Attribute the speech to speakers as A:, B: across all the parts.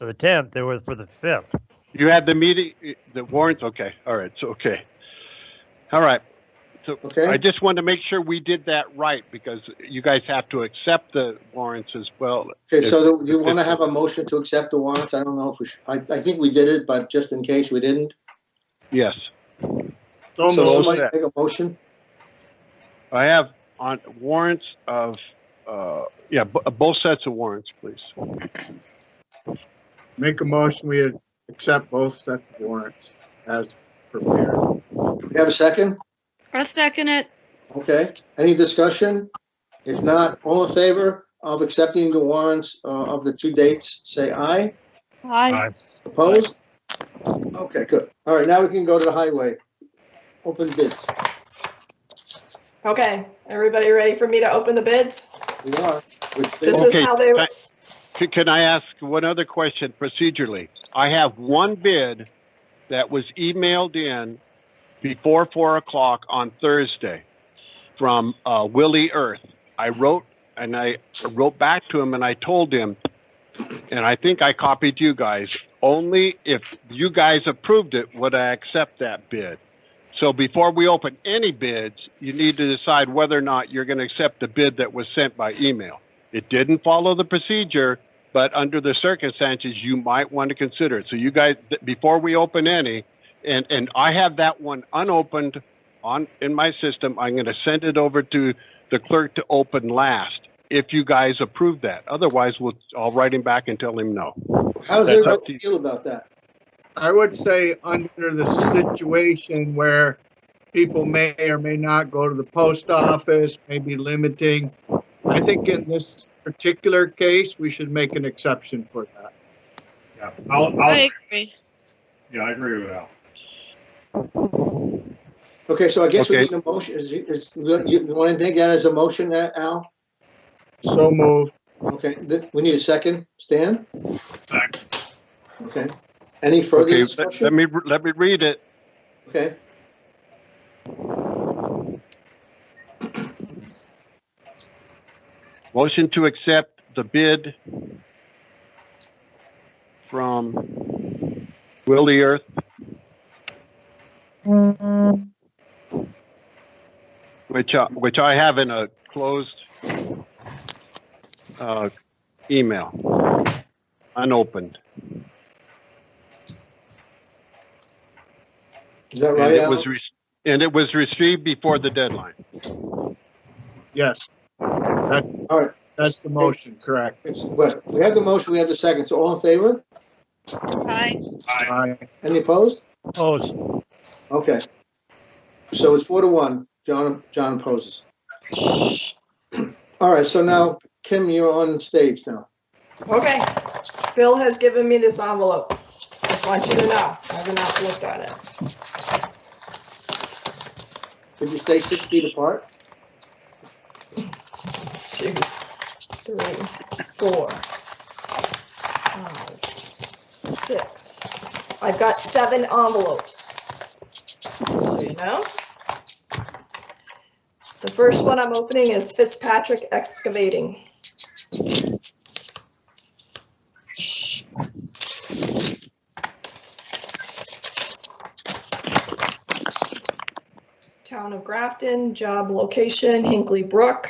A: So the tenth, it was for the fifth.
B: You had the meeting, the warrants, okay, all right, so, okay. All right, I
C: okay?
B: just wanted to make sure we did that right, because you guys have to accept the warrants as well.
C: Okay, so do you want to have a motion to accept the warrants? I don't know if we should, I, I think we did it, but just in case we didn't.
B: Yes,
A: So
C: So somebody
A: moved.
C: make a motion?
B: I have on warrants of, uh, yeah, bo- both sets of warrants, please.
D: Make a motion, we accept both sets of warrants as prepared.
C: We have a second?
E: I'll second it.
C: Okay, any discussion? If not, all in favor of accepting the warrants uh, of the two dates, say aye.
E: Aye.
A: Aye.
C: Opposed? Okay, good. All right, now we can go to the highway. Open bids.
F: Okay, everybody ready for me to open the bids?
C: We are. with-
F: This is
B: Okay,
F: how they,
B: thank- C- Can I ask one other question procedurally? I have one bid that was emailed in before four o'clock on Thursday from uh, Willie Earth. I wrote and I wrote back to him and I told him, and I think I copied you guys. Only if you guys approved it would I accept that bid. So before we open any bids, you need to decide whether or not you're going to accept the bid that was sent by email. It didn't follow the procedure, but under the circumstances, you might want to consider it. So you guys, th- before we open any, and, and I have that one unopened on, in my system, I'm going to send it over to the clerk to open last, if you guys approve that. Otherwise, we'll, I'll write him back and tell him no.
C: How
B: That's up
C: does
B: to
C: everybody
B: you.
C: feel about that?
D: I would say under the situation where people may or may not go to the post office, maybe limiting. I think in this particular case, we should make an exception for that.
G: Yeah, I'll, I'll,
E: I agree.
G: yeah, I agree with Al.
C: Okay, so I guess we
B: Okay.
C: need a motion. Is, is, you want to take that as a motion, uh, Al?
D: So moved.
C: Okay, th- we need a second. Stan?
G: Second.
C: Okay. Any further
B: Okay, let- let
C: discussion?
B: me, re- let me read it.
C: Okay,
B: Motion to accept the bid from Willie Earth. Which, uh, which I have in a closed, uh, email, unopened.
C: is that
B: And
C: right,
B: it
C: Al?
B: was, re- and it was received before the deadline.
D: Yes,
C: All right,
D: that's the motion, correct.
C: it's- but we have the motion, we have the second. So all in favor?
E: Aye.
G: Aye.
D: Aye.
C: Any opposed?
A: Opposed.
C: Okay. So it's four to one. John, John opposes. All right, so now, Kim, you're on stage now.
F: okay, Bill has given me this envelope. Just want you to know, I have not looked at it.
C: Did you stay six feet apart?
F: two, three, four, five, six. I've got seven envelopes. So you know. The first one I'm opening is Fitzpatrick Excavating. Town of Grafton, job location Hinkley Brook.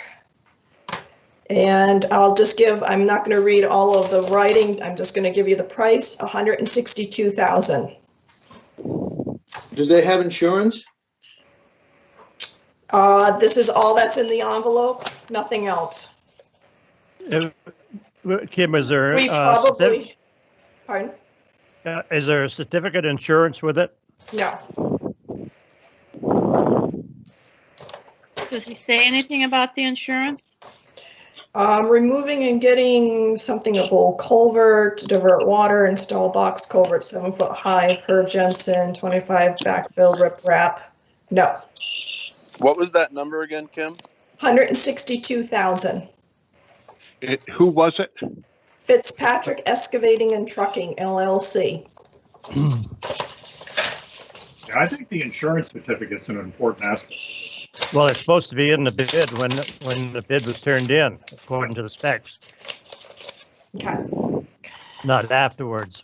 F: And I'll just give, I'm not gonna read all of the writing, I'm just gonna give you the price, hundred and sixty-two thousand.
C: Do they have insurance?
F: Uh, this is all that's in the envelope, nothing else.
A: Uh, Kim, is there,
F: We
A: uh, certi-
F: probably, pardon?
A: uh, is there a certificate insurance with it?
F: No,
E: Does he say anything about the insurance?
F: um, removing and getting something of old culvert, to divert water, install box culvert seven foot high per Jensen, twenty-five backfill rip wrap. No,
H: What was that number again, Kim?
F: hundred and sixty-two thousand.
B: It, who was it?
F: Fitzpatrick Excavating and Trucking LLC.
G: Yeah, I think the insurance certificate's an important aspect.
A: Well, it's supposed to be in the bid when, when the bid was turned in, according to the specs.
F: Okay.
A: not afterwards.